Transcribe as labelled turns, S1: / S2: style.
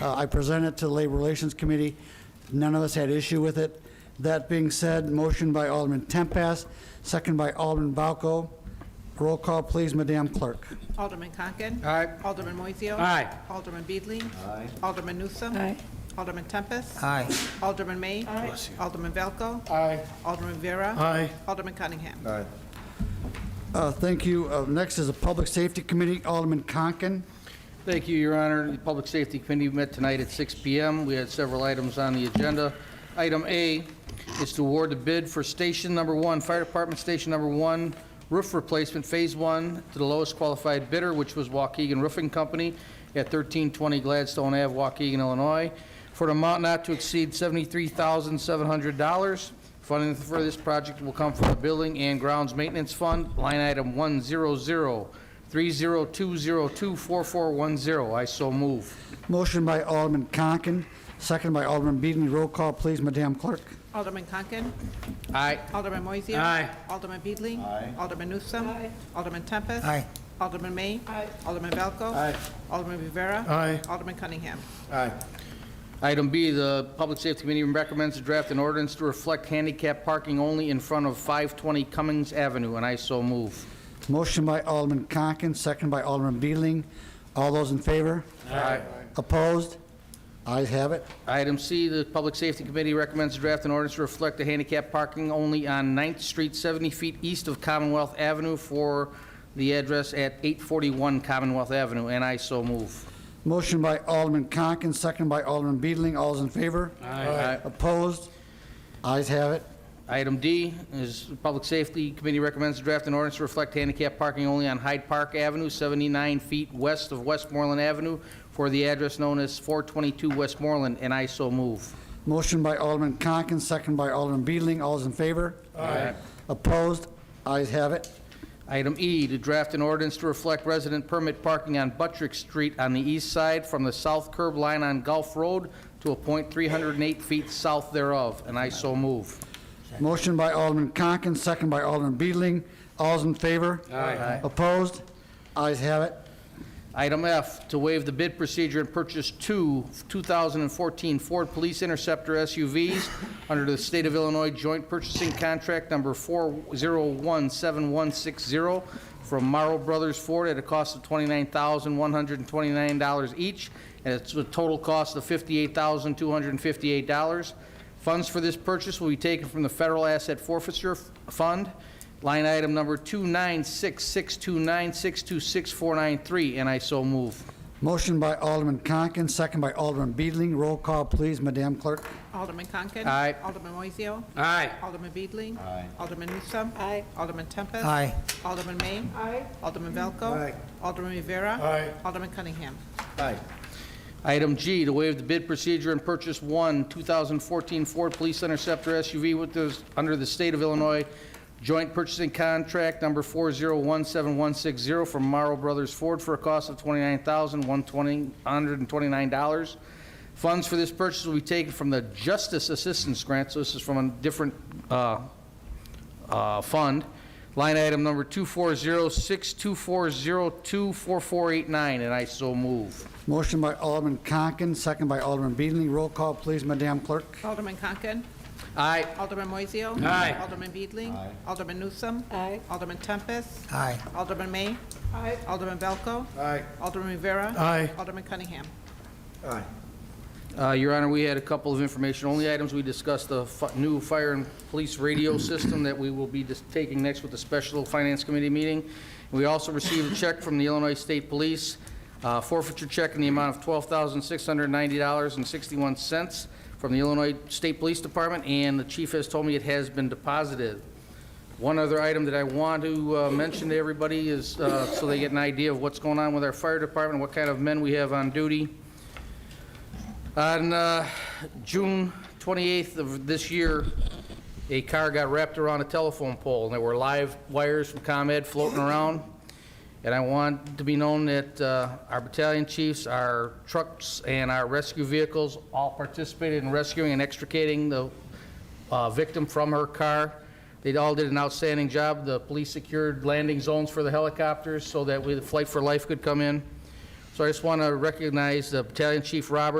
S1: Uh, I presented it to the Labor Relations Committee. None of us had issue with it. That being said, motion by Alderman Tempest, second by Alderman Valco. Roll call, please, Madam Clerk.
S2: Alderman Conken.
S3: Aye.
S2: Alderman Moiseo.
S3: Aye.
S2: Alderman Beedling. Aye. Alderman Newsome.
S4: Aye.
S2: Alderman Tempest.
S3: Aye.
S2: Alderman May. Aye. Alderman Valco.
S3: Aye.
S2: Alderman Vera.
S3: Aye.
S2: Alderman Cunningham.
S3: Aye.
S1: Uh, Thank you. Uh, Next is the Public Safety Committee, Alderman Conken.
S3: Thank you, Your Honor. The Public Safety Committee met tonight at 6 PM. We had several items on the agenda. Item A is to award the bid for Station Number One, Fire Department Station Number One Roof Replacement Phase One to the lowest qualified bidder, which was Waukegan Roofing Company at 1320 Gladstone Ave, Waukegan, Illinois, for an amount not to exceed $73,700. Funding for this project will come from the Building and Grounds Maintenance Fund, line item 100-30202-4410. I so move.
S1: Motion by Alderman Conken, second by Alderman Beedling. Roll call, please, Madam Clerk.
S2: Alderman Conken.
S3: Aye.
S2: Alderman Moiseo.
S3: Aye.
S2: Alderman Beedling. Aye. Alderman Newsome. Aye. Alderman Tempest.
S3: Aye.
S2: Alderman May. Aye. Alderman Valco.
S3: Aye.
S2: Alderman Rivera.
S3: Aye.
S2: Alderman Cunningham.
S3: Aye. Item B, the Public Safety Committee recommends to draft an ordinance to reflect handicap parking only in front of 520 Cummings Avenue, and I so move.
S1: Motion by Alderman Conken, second by Alderman Beedling. All those in favor?
S3: Aye.
S1: Opposed? Ayes have it.
S3: Item C, the Public Safety Committee recommends to draft an ordinance to reflect the handicap parking only on 9th Street, 70 feet east of Commonwealth Avenue for the address at 841 Commonwealth Avenue, and I so move.
S1: Motion by Alderman Conken, second by Alderman Beedling. All those in favor?
S3: Aye.
S1: Opposed? Ayes have it.
S3: Item D is the Public Safety Committee recommends to draft an ordinance to reflect handicap parking only on Hyde Park Avenue, 79 feet west of Westmoreland Avenue for the address known as 422 Westmoreland, and I so move.
S1: Motion by Alderman Conken, second by Alderman Beedling. All those in favor?
S3: Aye.
S1: Opposed? Ayes have it.
S3: Item E, to draft an ordinance to reflect resident permit parking on Buttrick Street on the east side from the south curb line on Gulf Road to a point 308 feet south thereof, and I so move.
S1: Motion by Alderman Conken, second by Alderman Beedling. All those in favor? Aye. Opposed? Ayes have it.
S3: Item F, to waive the bid procedure and purchase two 2014 Ford Police Interceptor SUVs under the State of Illinois Joint Purchasing Contract Number 4017160 from Morrow Brothers Ford at a cost of $29,129 each, and it's a total cost of $58,258. Funds for this purchase will be taken from the Federal Asset Forfeiture Fund, line item number 29662962649, and I so move.
S1: Motion by Alderman Conken, second by Alderman Beedling. Roll call, please, Madam Clerk.
S2: Alderman Conken.
S3: Aye.
S2: Alderman Moiseo.
S3: Aye.
S2: Alderman Beedling. Aye. Alderman Newsome.
S4: Aye.
S2: Alderman Tempest.
S1: Aye.
S2: Alderman May. Aye. Alderman Valco.
S3: Aye.
S2: Alderman Rivera.
S3: Aye.
S2: Alderman Cunningham.
S3: Aye. Item G, to waive the bid procedure and purchase one 2014 Ford Police Interceptor SUV with those, under the State of Illinois Joint Purchasing Contract Number 4017160 from Morrow Brothers Ford for a cost of $29,129. Funds for this purchase will be taken from the Justice Assistance Grant, so this is from a different uh, uh, fund. Line item number 2406240244489, and I so move.
S1: Motion by Alderman Conken, second by Alderman Beedling. Roll call, please, Madam Clerk.
S2: Alderman Conken.
S3: Aye.
S2: Alderman Moiseo.
S3: Aye.
S2: Alderman Beedling. Aye. Alderman Newsome.
S4: Aye.
S2: Alderman Tempest.
S1: Aye.
S2: Alderman May. Aye. Alderman Valco.
S3: Aye.
S2: Alderman Rivera.
S1: Aye.
S2: Alderman Cunningham.
S3: Aye. Uh, Your Honor, we had a couple of information, only items we discussed, the fi- new fire and police radio system that we will be dis- taking next with the Special Finance Committee meeting. We also received a check from the Illinois State Police, uh, forfeiture check in the amount of $12,690.61 from the Illinois State Police Department, and the chief has told me it has been deposited. One other item that I want to uh, mention to everybody is, uh, so they get an idea of what's going on with our fire department, what kind of men we have on duty. On uh, June 28th of this year, a car got wrapped around a telephone pole, and there were live wires from ComEd floating around. And I want to be known that uh, our battalion chiefs, our trucks, and our rescue vehicles all participated in rescuing and extricating the uh, victim from her car. They all did an outstanding job. The police secured landing zones for the helicopters so that we- the Flight for Life could come in. So I just want to recognize uh, Battalion Chief Robert